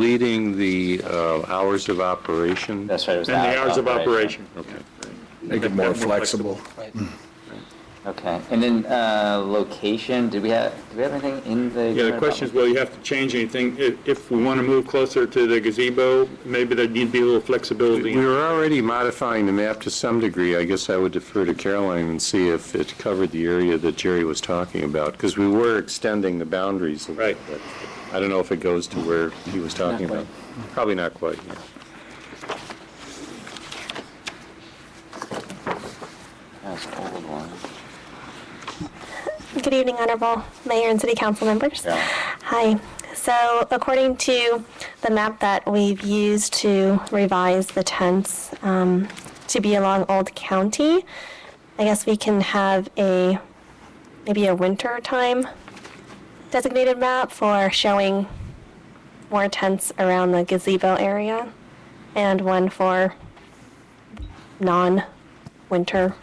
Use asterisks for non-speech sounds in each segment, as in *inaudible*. deleting the uh, hours of operation. That's right. it was And the hours of operation. Okay. Make it more flexible. Okay, and then, uh, location, did we have, did we have anything in the? Yeah, the question is, will you have to change anything? If, if we want to move closer to the gazebo, maybe there need to be a little flexibility. We were already modifying the map to some degree. I guess I would defer to Caroline and see if it covered the area that Jerry was talking about, because we were extending the boundaries a little Right. bit. I don't know if it goes to where he was talking Not about. Probably not quite. yeah. That's an old one. Good evening, Honorable Mayor and City Council members. Yeah. Hi. So according to the map that we've used to revise the tents um, to be along Old County, I guess we can have a, maybe a winter time designated map for showing more tents around the gazebo area and one for non-winter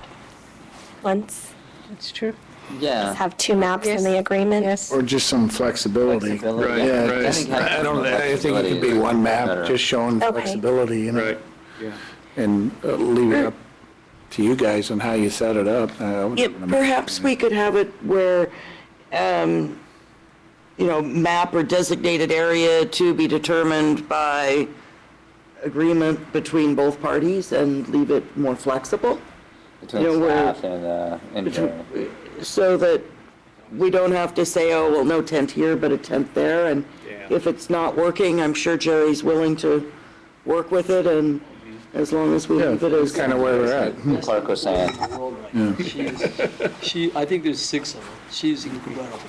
months. That's true. Yeah. have two maps in the Yes. agreement. Yes. Or just some flexibility. Flexibility, Right, Yeah, right. just- I don't, I think it could be one map, just showing Okay. flexibility, you know, Right. and uh, leave it up to you guys on how you set it up. Uh, I Yeah, wasn't gonna- perhaps we could have it where, um, you know, map or designated area to be determined by agreement between both parties and leave it more flexible, you Between know, where- staff and, uh, engineering. so that we don't have to say, oh, well, no tent here, but a tent there, and Yeah. if it's not working, I'm sure Jerry's willing to work with it, and as long as we Yeah, leave it that's as. kind of where we're at. The Clerk was saying, She's, she, I think there's six of them. She's incredible.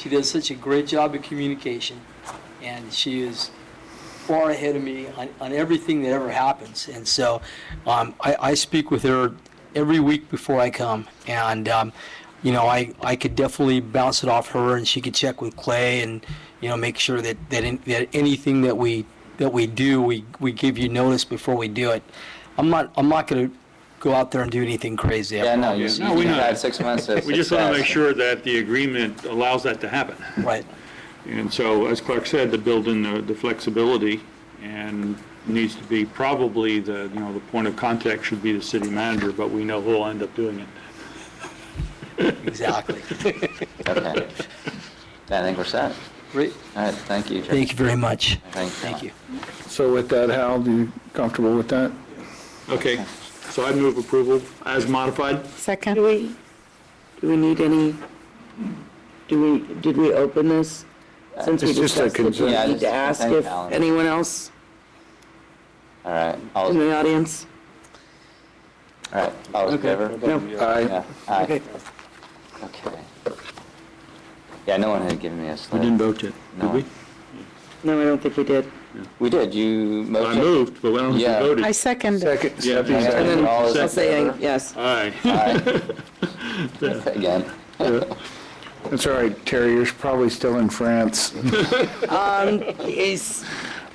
She does such a great job of communication, and she is far ahead of me on, on everything that ever happens. And so, um, I, I speak with her every week before I come, and, um, you know, I, I could definitely bounce it off her, and she could check with Clay and, you know, make sure that, that, in- that anything that we, that we do, we, we give you notice before we do it. I'm not, I'm not gonna go out there and do anything crazy. yeah, no, you, No, we you know. had six months of *laughs* We just want to make success. sure that the agreement allows that to happen. Right. And so, as Clark said, to build in the the flexibility and needs to be probably the, you know, the point of contact should be the city manager, but we know who'll end up doing it. Exactly. *laughs* Okay. I think we're set. Great. All right, thank you, Jerry. Thank you very much. Thank you. Thank you. So with that, Hal, do you comfortable with that? Okay, so I move approval as modified. Do Second? we, do we need any, do we, did we open this? Since we It's just a discussed it, do consent. we Yeah, need it's to a ask consent if calendar. anyone else All right, all, in all the audience? right, all in favor? No? Aye. Yeah, aye, Okay. okay. Yeah, no one had given me a slip. vote yet, No. No, I don't think we did. We did, you I motioned. moved, but I don't think Yeah. we voted. I second. Second, Yeah, And Stephanie, And second. then All is in I'll say, favor? yes. Aye. Aye. Again, That's all right, Terry, you're probably still in France, *laughs* Um, Is-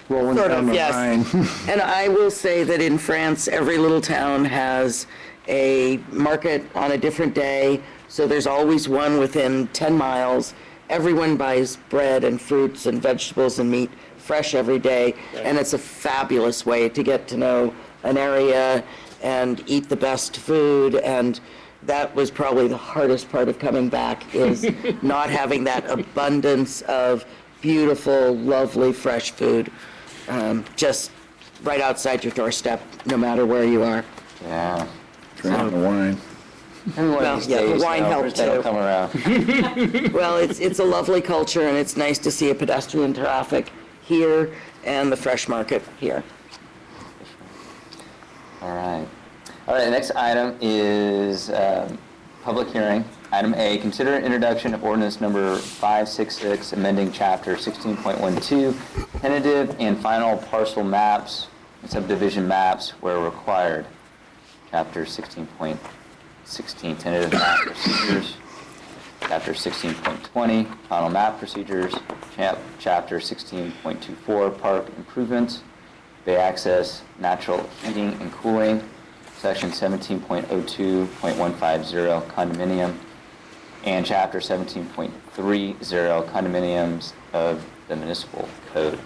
rolling Sort of, down the yes. Rhine. *laughs* And I will say that in France, every little town has a market on a different day, so there's always one within 10 miles. Everyone buys bread and fruits and vegetables and meat fresh every day, and it's a fabulous way to get to know an area and eat the best food, and that was probably the hardest part of coming back, is not having that abundance of beautiful, lovely, fresh food um, just right outside your doorstep, no matter where you are. yeah. Drinking the wine. Maybe one Well, of these yeah, the days, wine you know, helped that'll too. come around. *laughs* Well, it's, it's a lovely culture, and it's nice to see a pedestrian traffic here and the fresh market here. All right. All right, the next item is um, public hearing. Item A, consider introduction of ordinance number 566, amending chapter 16.12, tentative and final parcel maps and subdivision maps where required. Chapter 16.16, tentative map procedures. Chapter 16.20, final map procedures. Chap- Chapter 16.24, park improvements. Bay access, natural heating and cooling, section 17.02.150 condominium, and chapter 17.30 condominiums of the municipal code.